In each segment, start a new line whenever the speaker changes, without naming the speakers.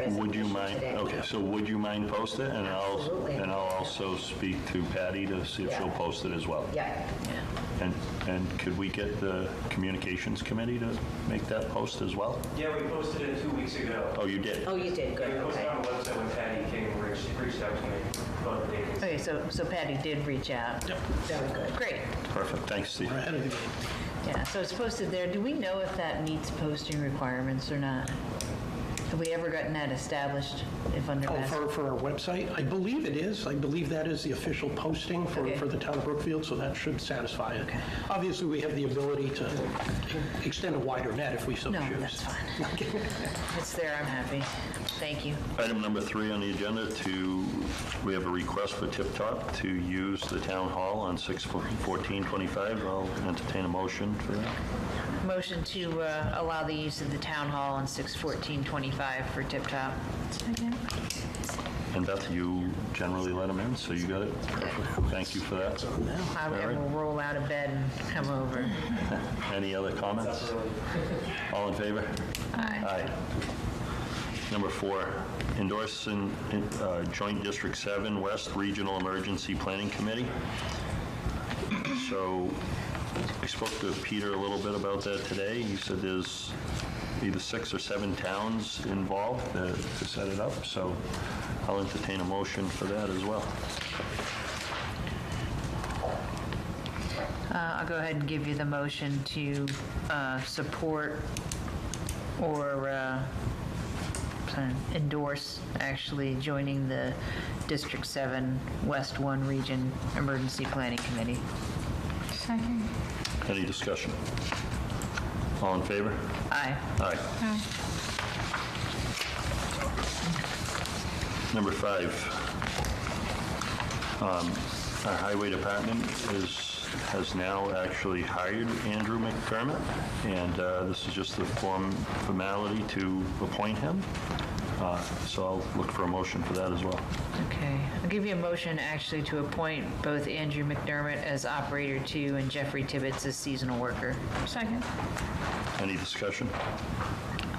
as a
Would you
condition
mind,
today.
okay, so would you mind post it? And I'll,
Absolutely.
and I'll also speak to Patty to see if she'll
Yeah.
post it as well.
Yeah,
And, and could we get the communications committee to make that post as well?
Yeah, we posted it two weeks ago.
Oh, you did?
oh, you did,
We
good,
posted
okay.
on the website when Patty King reached reached out to me about the vacancy.
Okay, so, so Patty did reach out.
Very good.
Oh.
Great,
Perfect, thanks, Steve.
yeah, so it's posted there. Do we know if that meets posting requirements or not? Have we ever gotten that established if under
Oh,
Mass?
for, for our website? I believe it is. I believe that is the official posting for,
Okay.
for the town of Brookfield, so that should satisfy it. Obviously, we have the ability to extend a wider net if we so choose.
No, that's fine. It's there, I'm happy. Thank you.
Item number three on the agenda to, we have a request for Tip Top to use the town hall on 6/14/25. I'll entertain a motion for that.
Motion to uh, allow the use of the town hall on 6/14/25 for Tip Top.
And Beth, you generally let them in, so you got it. Perfect. Thank you for that.
I
All right.
will roll out of bed and come over.
Any other comments? All in favor? Aye. Number four, endorsing uh, Joint District 7 West Regional Emergency Planning Committee. So I spoke to Peter a little bit about that today. He said there's either six or seven towns involved uh, to set it up, so I'll entertain a motion for that as well.
Uh, I'll go ahead and give you the motion to uh, support or uh, sorry, endorse actually joining the District 7 West 1 Region Emergency Planning Committee.
Any discussion? All in favor?
Aye.
Aye. Number five, um, our highway department is, has now actually hired Andrew McDermott, and uh, this is just the form, formality to appoint him. Uh, So I'll look for a motion for that as well.
Okay. I'll give you a motion actually to appoint both Andrew McDermott as Operator 2 and Jeffrey Tibbetts as Seasonal Worker. Second.
Any discussion?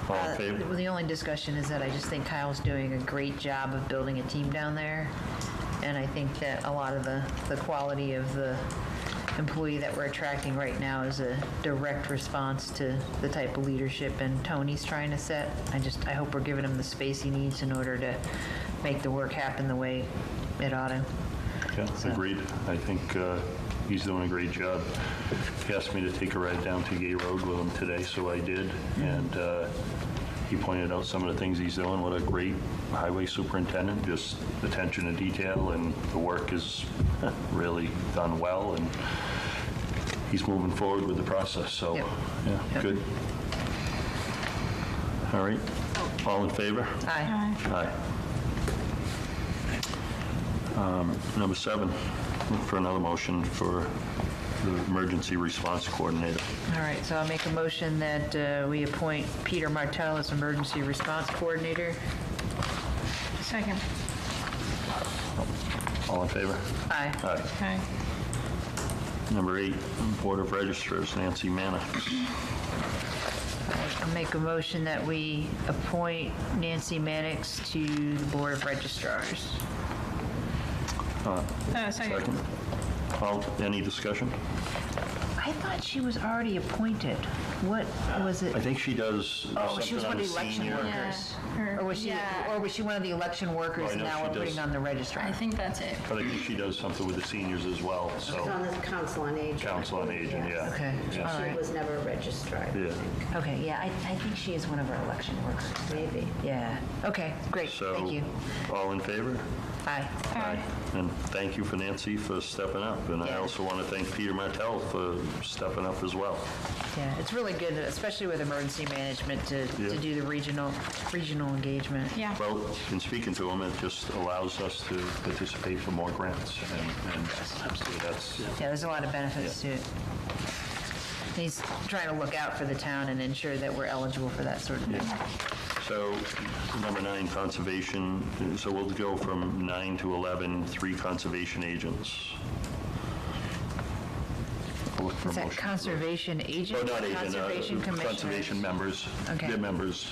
All in favor?
The only discussion is that I just think Kyle's doing a great job of building a team down there. And I think that a lot of the, the quality of the employee that we're attracting right now is a direct response to the type of leadership and tone he's trying to set. I just, I hope we're giving him the space he needs in order to make the work happen the way it ought to.
Yeah, agreed. I think uh, he's doing a great job. He asked me to take a ride down to Gay Road with him today, so I did. And uh, he pointed out some of the things he's doing. What a great highway superintendent, just attention to detail, and the work is really done well, and he's moving forward with the process, so,
Yep.
yeah,
Yep.
good. All right,
Oh.
all in favor?
Aye.
Aye. Um, Number seven, look for another motion for the emergency response coordinator.
All right, so I'll make a motion that uh, we appoint Peter Martell as Emergency Response Coordinator. Second.
All in favor?
Aye.
Aye.
Aye.
Number eight, Board of Registers, Nancy Mannix.
I'll make a motion that we appoint Nancy Mannix to the Board of Registrars.
Second. All, any discussion?
I thought she was already appointed. What was
I
it?
think she does
Oh,
something
she was
on
one
the
of the election
senior-
workers.
Her-
Or was she,
yeah.
or was she one of the election workers
I know
now
she
we're putting
does.
on the registrar?
I think that's it.
But I think she does something with the seniors as well,
It's
so,
on the council on aging.
Council on Aging, yeah.
Okay, all
Yeah.
She
right.
was never a registrar, I
Yeah.
think,
Okay, yeah, I, I think she is one of our election workers.
maybe.
Yeah, okay, great, thank you.
So, all in favor?
Aye.
Aye. And thank you for Nancy for stepping up, and I
Yeah.
also want to thank Peter Martell for stepping up as well.
Yeah, it's really good, especially with emergency management, to, to
Yeah.
do the regional, regional engagement.
Yeah.
Well, in speaking to him, it just allows us to participate for more grants, and and absolutely, that's,
Yeah, there's a lot of benefits to it. He's trying to look out for the town and ensure that we're eligible for that sort of thing.
So, number nine, conservation, so we'll go from nine to 11, three conservation agents. I'll look for a
Is that
motion.
conservation agent?
Oh, not agent, uh,
Conservation commissioner?
Conservation members,
Okay.
their members.